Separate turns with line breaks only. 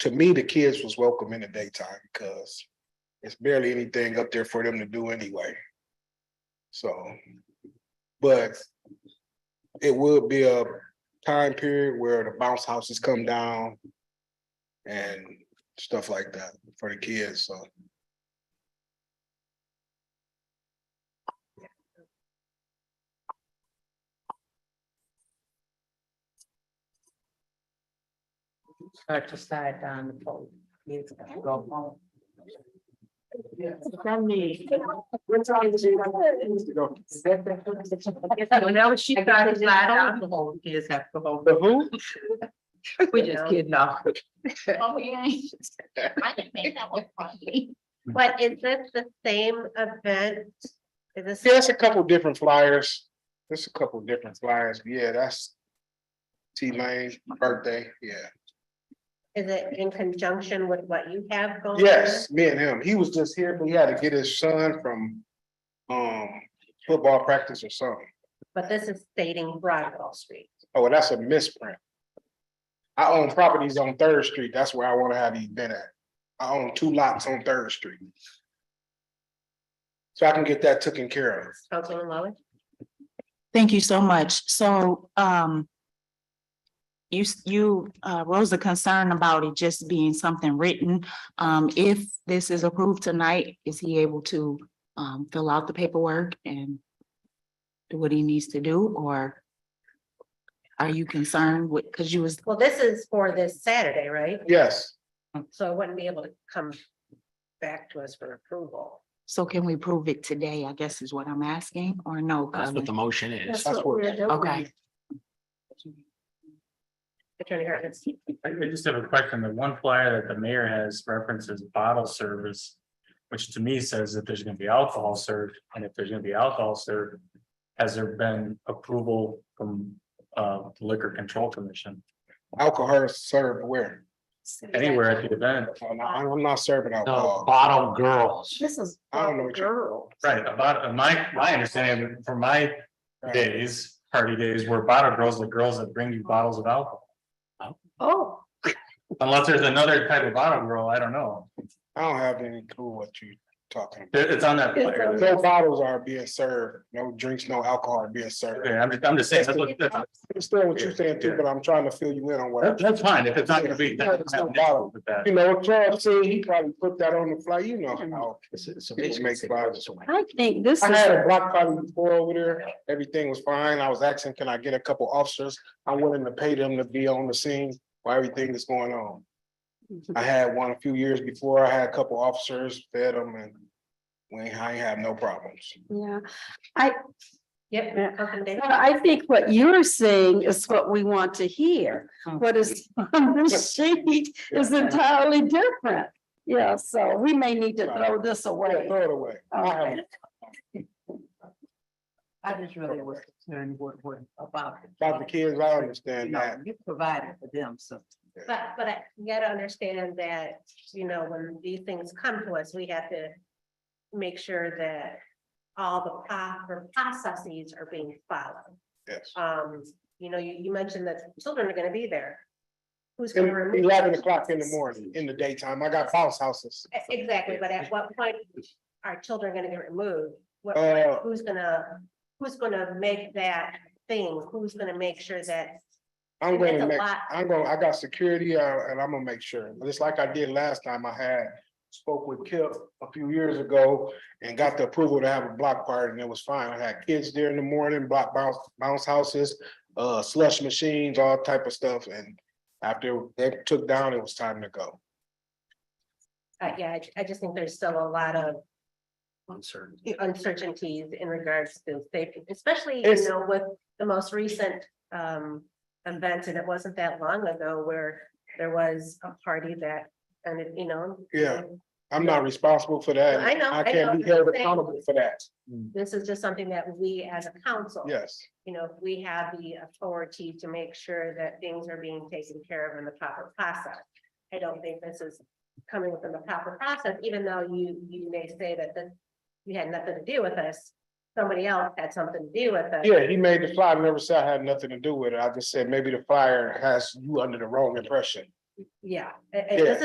to me, the kids was welcome in the daytime because it's barely anything up there for them to do anyway. So, but it would be a time period where the bounce houses come down and stuff like that for the kids, so.
Start to slide down the pole. It's gonna go home.
From me.
What's wrong with you? Is that the-
Whenever she
I got
started
it
flat
flat
out.
out. The whole kids have to hold.
who?
We just kidding off.
Oh, yeah. I didn't make that one funny. But is this the same event? Is this?
Yeah, it's a couple different flyers. There's a couple different flyers. Yeah, that's T Lane's birthday, yeah.
Is it in conjunction with what you have going? on?
Yes, me and him. He was just here, but he had to get his son from um football practice or something.
But this is stating Broadwell Street.
Oh, well, that's a misprint. I own properties on Third Street. That's where I want to have the event at. I own two lots on Third Street. So I can get that taken care of.
Councilman Lowen?
Thank you so much. So, um, you, s- you, uh, rose a concern about it just being something written. Um, if this is approved tonight, is he able to, um, fill out the paperwork and do what he needs to do, or are you concerned with, because you was,
Well, this is for this Saturday, right?
Yes,
So I wouldn't be able to come back to us for approval.
so can we prove it today, I guess is what I'm asking, or no?
That's what the motion is.
that's what-
Okay.
Attorney Hartness.
I I just have a question. The one flyer that the mayor has references bottle service. Which to me says that there's gonna be alcohol served, and if there's gonna be alcohol served. Has there been approval from uh liquor control commission
alcohol is served where?
anywhere at the event?
I'm not- I'm not serving
No,
alcohol.
bottle girls.
This is.
I don't know what you're-
girl.
Right, about my my understanding from my days, party days, were bottle girls, the girls that bring you bottles of alcohol.
Oh,
Unless there's another type of bottle girl, I don't know.
I don't have any clue what you're talking about.
It- It's on that flyer.
No bottles are being served, no drinks, no alcohol are being served.
Okay, I'm just, I'm just saying, that's what, that's
I understand what you're saying too, but I'm trying to fill you in on what.
That-
I'm-
That's fine, if it's not gonna be.
Yeah, it's no problem.
With that.
You know, Charles said he probably put that on the fly, you know how. People make flyers.
I think this
I had a block party before over there, everything was fine, I was asking, can I get a couple officers? I'm willing to pay them to be on the scene while everything is going on. I had one a few years before, I had a couple officers, fed them and we, ain't- I ain't have no problems.
Yeah,
yep. Councilman Day.
Well, I think what you're saying is what we want to hear.
Mm.
What is on this sheet is entirely different. Yeah, so we may need to throw this away.
Throw it away. I have-
Okay.
I just really was concerned what, what about.
About the kids, I understand
No,
that.
You provided for them, so.
But, but I you gotta understand that, you know, when these things come to us, we have to make sure that all the proper processes are being followed.
Yes.
Um, you know, you, you mentioned that children are gonna be there. Who's gonna remove?
Eleven o'clock in the morning, in the daytime. I got bounce houses.
E- Exactly, but at what point are children gonna get removed? What,
Uh,
who's gonna, who's gonna make that thing? Who's gonna make sure that?
I'm
It's
gonna
a
make,
lot.
I'm gonna, I got security uh, and I'm gonna make sure. Just like I did last time, I had spoke with Kip a few years ago and got the approval to have a block party and it was fine. I had kids there in the morning, block bounce, bounce houses, uh, slush machines, all type of stuff. And after they took down, it was time to go.
Uh, yeah, I, I just think there's still a lot of
Uncertain.
the uncertainties in regards to safety, especially,
It's-
you know, with the most recent um event, and it wasn't that long ago where there was a party that, and it, you know.
Yeah. I'm not responsible for that.
I know,
I
I
can't
know.
be held accountable for that.
This is just something that we as a council.
Yes.
You know, we have the authority to make sure that things are being taken care of in the proper process. I don't think this is coming within the proper process, even though you, you may say that this you had nothing to do with us. Somebody else had something to do with us.
Yeah, he made the flyer, never said I had nothing to do with it. I just said maybe the flyer has you under the wrong impression. yeah, and- and this
Yeah.
is